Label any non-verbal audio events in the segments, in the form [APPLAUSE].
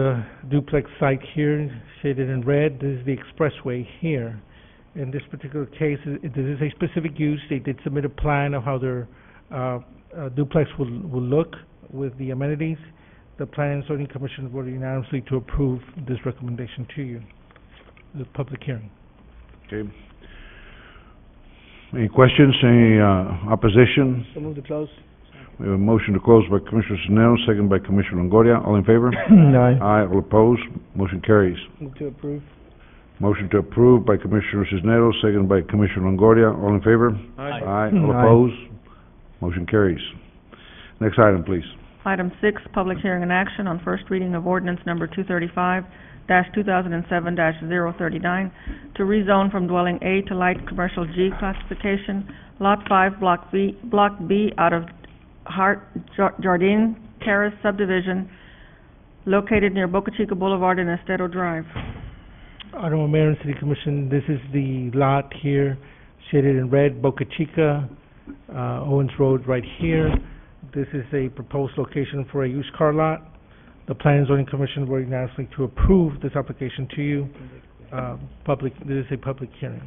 The duplex site here, shaded in red, this is the expressway here. In this particular case, i- this is a specific use, they did submit a plan of how their, uh, uh, duplex will, will look with the amenities. The Planning and Zoning Commission voted unanimously to approve this recommendation to you, the public hearing. Okay. Any questions, any, uh, opposition? So move to close. We have a motion to close by Commissioner Sisnetos, second by Commissioner Longoria. All in favor? Aye. Aye, all opposed, motion carries. Move to approve. Motion to approve by Commissioner Sisnetos, second by Commissioner Longoria. All in favor? Aye, all Aye. opposed, motion carries. Next item, please. Item six, public hearing and action on first reading of ordinance number two thirty-five two thousand and seven 39 to rezone from dwelling A to light commercial G classification, lot five, block B, block B out of Hart Jar- Jardine Terrace subdivision located near Boca Chica Boulevard and Estero Drive. Honorable Mayor and City Commission, this is the lot here, shaded in red, Boca Chica, uh, Owens Road right here. This is a proposed location for a used car lot. The Planning and Zoning Commission voted unanimously to approve this application to you. Uh, public, this is a public hearing.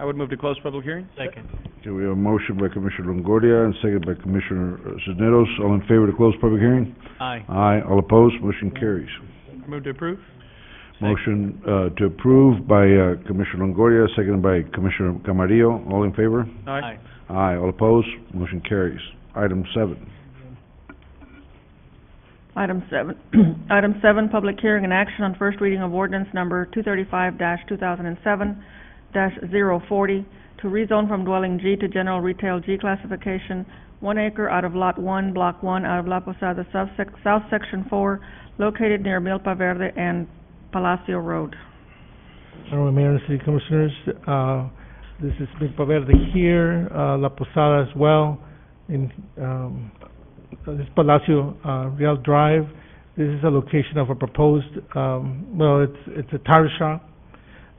I would move to close public hearing. Second. Okay, we have a motion by Commissioner Longoria and second by Commissioner uh, Sisnetos. All in favor to close public hearing? Aye. Aye, all opposed, motion carries. Move to approve. Motion, uh, to approve by, uh, Commissioner Longoria, second by Commissioner Camarillo. All in favor? Aye. Aye, all opposed, motion carries. Item seven. Item seven, [CLEARS THROAT] item seven, public hearing and action on first reading of ordinance number two thirty-five two thousand and seven 40 to rezone from dwelling G to general retail G classification, one acre out of lot one, block one, out of La Posada, subsec- south section four, located near Milpa Verde and Palacio Road. Honorable Mayor and City Commissioners, uh, this is Milpa Verde here, uh, La Posada as well, in, um, this is Palacio, uh, Real Drive. This is a location of a proposed, um, well, it's, it's a tire shop.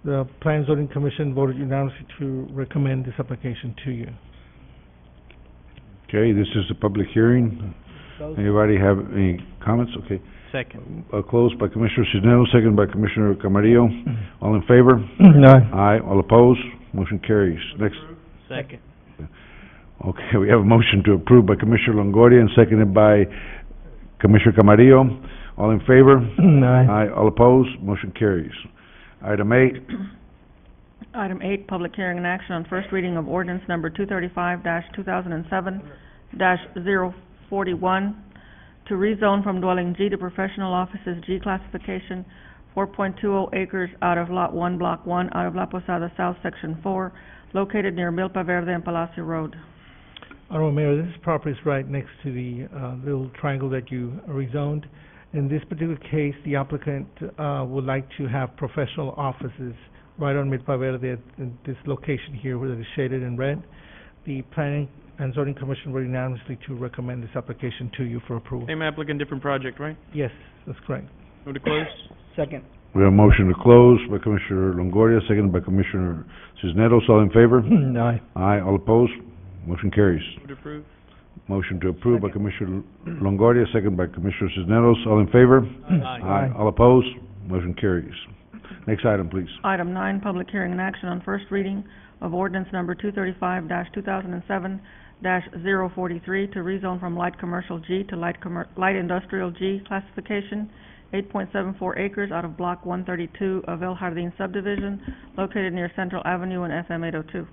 The Plan Zoning Commission voted unanimously to recommend this application to you. Okay, this is a public hearing. Anybody have any comments? Okay. Second. Uh, closed by Commissioner Sisnetos, second by Commissioner Camarillo. Mm-hmm. All in favor? [CLEARS THROAT] Aye, all opposed, motion carries. Next. Second. Okay, we have a motion to approve by Commissioner Longoria and seconded by Commissioner Camarillo. All in favor? [CLEARS THROAT] Aye, all opposed, motion carries. Item eight, Item eight, public hearing and action on first reading of ordinance number two thirty-five two thousand and seven 41 to rezone from dwelling G to professional offices G classification, four point two oh acres out of lot one, block one, out of La Posada South, section four, located near Milpa Verde and Palacio Road. Honorable Mayor, this property is right next to the, uh, little triangle that you rezoned. In this particular case, the applicant, uh, would like to have professional offices right on Milpa Verde at in this location here where it is shaded in red. The Planning and Zoning Commission voted unanimously to recommend this application to you for approval. Same applicant, different project, right? Yes, that's correct. Move to close. Second. we have a motion to close by Commissioner Longoria, seconded by Commissioner Sisnetos. All in favor? Aye. Aye, all opposed, motion carries. Move to approve. Motion to approve by Commissioner Longoria, seconded by Commissioner Sisnetos. All in favor? Aye. All opposed, motion carries. Next item, please. Item nine, public hearing and action on first reading of ordinance number two thirty-five two thousand and seven 43 to rezone from light commercial G to light commer- light industrial G classification, eight point seven four acres out of block one thirty-two of El Jardín subdivision, located near Central Avenue and FM eight oh two.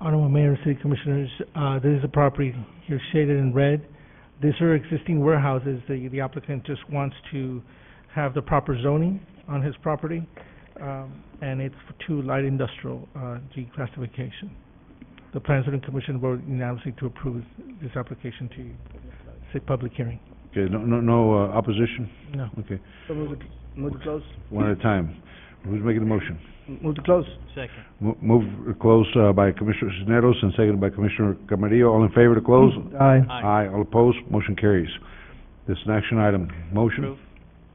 Honorable Mayor and City Commissioners, uh, this is a property here shaded in red. These are existing warehouses. The, the applicant just wants to have the proper zoning on his property. Um, and it's for two light industrial, uh, G classification. The Plan Zoning Commission voted unanimously to approve this application to you. It's a public hearing. Okay, no, no, no uh, opposition? No. Okay, Move to, move to close, one at a time. Who's making the motion? move to close. Second. Mo- Move to close uh, by Commissioner Cisneros and seconded by Commissioner Camarillo. All in favor to close? Aye. Aye. all opposed, motion carries. This is an action item. Motion, Approve.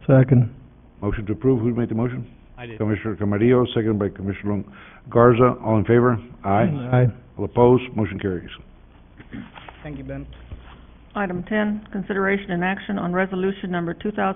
Second. motion to approve. Who made the motion? I did. Commissioner Camarillo, seconded by Commissioner Lon- Garza. All in favor? Aye. All opposed, motion carries. Thank you, Ben. Item ten, consideration and action on resolution number two thousand